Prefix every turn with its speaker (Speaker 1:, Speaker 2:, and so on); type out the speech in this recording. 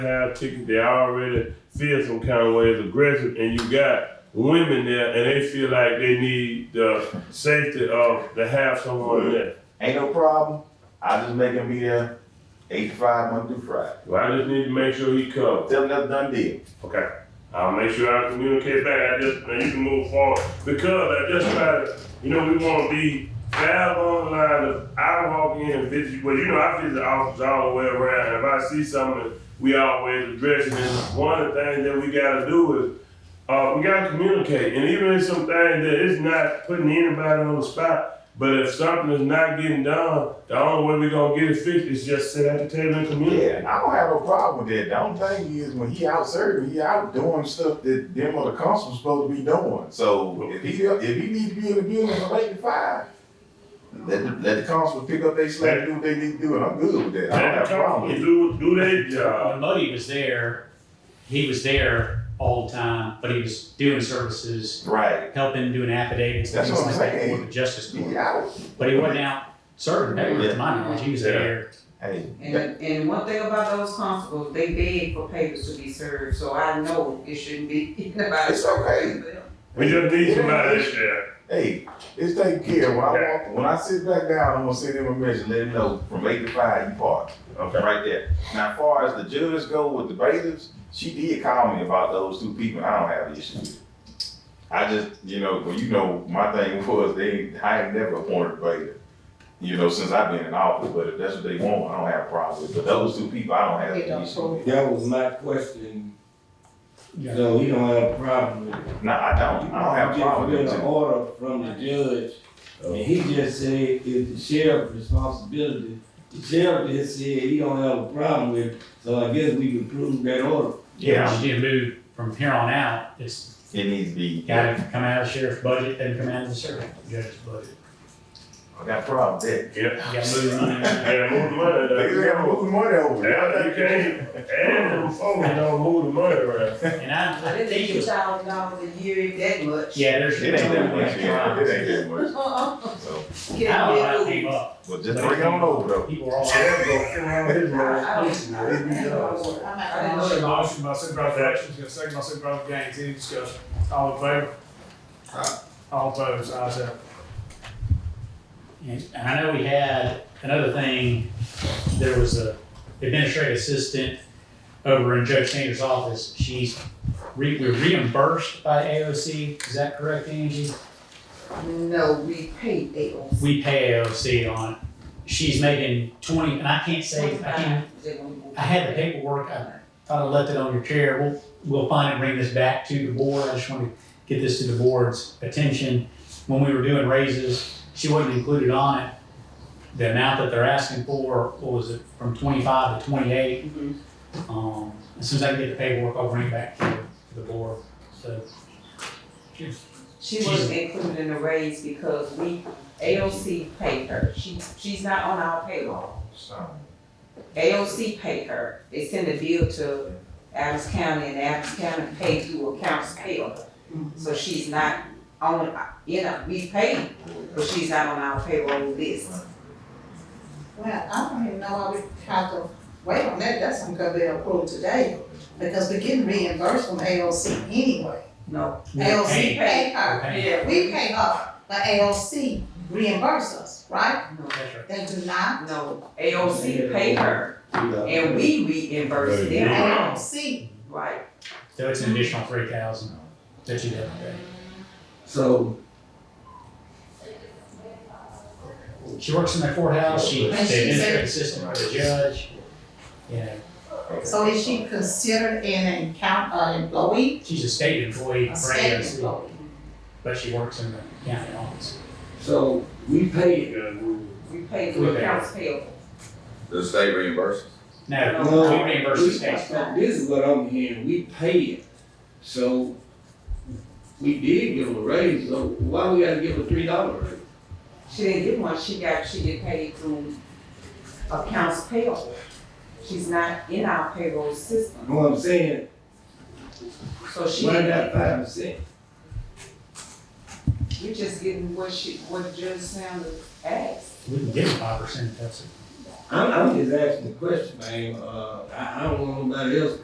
Speaker 1: have chickens, they already feel some kind of way it's aggressive, and you got women there, and they feel like they need the safety of to have someone there.
Speaker 2: Ain't no problem. I just make him be there eight to five, Monday through Friday.
Speaker 1: Well, I just need to make sure he comes.
Speaker 2: Tell him that's done deal.
Speaker 1: Okay. I'll make sure I communicate back. I just now you can move forward because I just try to, you know, we want to be fair along the line. Of, I walk in and visit you, well, you know, I visit the office all the way around. If I see something, we always address it. And one of the things that we got to do is uh, we gotta communicate, and even if some things that it's not putting anybody on the spot, but if something is not getting done, the only way we gonna get it fixed is just sit at the table and communicate.
Speaker 2: Yeah, I don't have no problem with that. The only thing is when he out serving, he out doing stuff that them other constables supposed to be doing. So if he if he needs to be in the building from eight to five, let the, let the constables pick up their slack and do what they need to do, and I'm good with that. I don't
Speaker 1: Let
Speaker 2: have a
Speaker 1: them
Speaker 2: problem.
Speaker 1: come
Speaker 2: with
Speaker 1: and
Speaker 2: it.
Speaker 1: do, do their job.
Speaker 3: When Muddy was there, he was there all the time, but he was doing services,
Speaker 2: Right.
Speaker 3: helping doing affidavits and
Speaker 2: That's
Speaker 3: things
Speaker 2: what
Speaker 3: like
Speaker 2: I'm
Speaker 3: that
Speaker 2: saying.
Speaker 3: for the justice
Speaker 2: He
Speaker 3: court.
Speaker 2: out.
Speaker 3: But he wasn't out serving, that was to my knowledge, he was
Speaker 1: Yeah.
Speaker 3: there.
Speaker 2: Hey,
Speaker 4: And, and one thing about those constables, they beg for papers to be served, so I know it shouldn't be anybody.
Speaker 2: It's okay.
Speaker 1: We just need somebody there.
Speaker 2: Hey, it's taken care of. When I walk, when I sit back down, I'm gonna send him a message, let him know from eight to five, you parked.
Speaker 1: Okay.
Speaker 2: right there. Now, as far as the jurors go with the bailiffs, she did call me about those two people. and I don't have an issue. with it. I just, you know, well, you know, my thing was they, I ain't never appointed a bailiff, you know, since I've been in office. But if that's what they want, I don't have a problem with. it. But those two people, I don't have
Speaker 4: They don't
Speaker 2: an issue with.
Speaker 5: That was my question. So we don't have a problem with it.
Speaker 2: No, I don't. I don't have a problem
Speaker 5: We
Speaker 2: with
Speaker 5: just
Speaker 2: it.
Speaker 5: get an order from the judge, and he just said it's the sheriff's responsibility. The sheriff just said he don't have a problem with it, so I guess we can prove that order.
Speaker 2: Yeah,
Speaker 3: But you did move from here on out, it's
Speaker 2: it needs to be.
Speaker 3: gotta come out of the sheriff's budget, then come out of the sheriff judge's budget.
Speaker 2: I got a problem with that.
Speaker 1: Yeah.
Speaker 3: You gotta move money. around.
Speaker 1: Yeah, move the money. there.
Speaker 2: They got moving money over.
Speaker 1: Yeah, you can't, and before, you don't move the money around.
Speaker 3: And
Speaker 4: I
Speaker 3: I think
Speaker 4: didn't think
Speaker 3: it
Speaker 4: a
Speaker 3: was,
Speaker 4: thousand dollars a year if that much.
Speaker 3: yeah, there's.
Speaker 2: It ain't that much. yeah. It
Speaker 3: I
Speaker 2: ain't that much.
Speaker 4: Uh-uh.
Speaker 2: So,
Speaker 3: don't
Speaker 4: Get
Speaker 3: know
Speaker 4: out
Speaker 3: how
Speaker 4: of
Speaker 3: it came
Speaker 4: there.
Speaker 3: up,
Speaker 2: well, just bring it on over though.
Speaker 3: people were all.
Speaker 4: I don't- I
Speaker 2: It'd be done.
Speaker 4: don't- I didn't know
Speaker 6: Motion
Speaker 4: that.
Speaker 6: by Supervisor Hutchins, got a second by Supervisor Gaines, any discussion? All in favor? All opposed, ayes have it.
Speaker 3: And and I know we had another thing, there was a administrative assistant over in Judge Sanders' office. She's re, we reimbursed by AOC, is that correct, Angie?
Speaker 4: No, we paid AOC.
Speaker 3: We pay AOC on, it. she's making twenty, and I can't say, I can't, I had the paperwork, I thought I left it on your chair. We'll, we'll find and bring this back to the board. I just want to get this to the board's attention. When we were doing raises, she wasn't included on it. The amount that they're asking for, what was it, from twenty-five to twenty-eight?
Speaker 4: Mhm.
Speaker 3: Um, as soon as I can get the paperwork, I'll bring it back to to the board, so.
Speaker 4: She wasn't included in the raise because we, AOC paid her. She, she's not on our payroll.
Speaker 2: So,
Speaker 4: AOC paid her, they send a bill to Adams County and Adams County paid through accounts payable. So she's not on, you know, we paid, but she's not on our payroll list.
Speaker 7: Well, I don't even know why we have to wait on that, that's something that they approved today, because we're getting reimbursed from AOC anyway.
Speaker 4: No,
Speaker 3: We're
Speaker 7: AOC
Speaker 3: paying.
Speaker 7: pay her,
Speaker 3: We're paying.
Speaker 4: Yeah.
Speaker 7: we pay her, but AOC reimburse us, right?
Speaker 3: That's right.
Speaker 7: They do not,
Speaker 4: no, AOC paid her and we reimbursed them,
Speaker 7: AOC,
Speaker 4: right?
Speaker 3: So it's an additional three thousand that you have to pay.
Speaker 5: So,
Speaker 3: She works in the courthouse, she's the
Speaker 7: And she's a-
Speaker 3: administrative assistant for the judge. You know,
Speaker 7: so is she considered an account, uh, employee,
Speaker 3: she's a state employee,
Speaker 7: a
Speaker 3: for
Speaker 7: state
Speaker 3: AOC,
Speaker 7: employee?
Speaker 3: but she works in the county office.
Speaker 5: so we paid,
Speaker 4: We paid through accounts payable.
Speaker 8: The state reimburses.
Speaker 3: No,
Speaker 7: Oh.
Speaker 5: No.
Speaker 3: we reimburse the state.
Speaker 5: this is what I'm hearing, we paid, so we did give a raise, so why we gotta give a three dollar raise?
Speaker 4: She didn't get one, she got, she get paid through accounts payable. She's not in our payroll
Speaker 5: You
Speaker 4: system,
Speaker 5: know what I'm saying?
Speaker 4: so she
Speaker 5: Why
Speaker 4: didn't
Speaker 5: not five percent?
Speaker 4: You're just getting what she, what Judge Sanders asked.
Speaker 3: We can give five percent, that's it.
Speaker 5: I'm, I'm just asking the question, man, uh, I, I don't want nobody else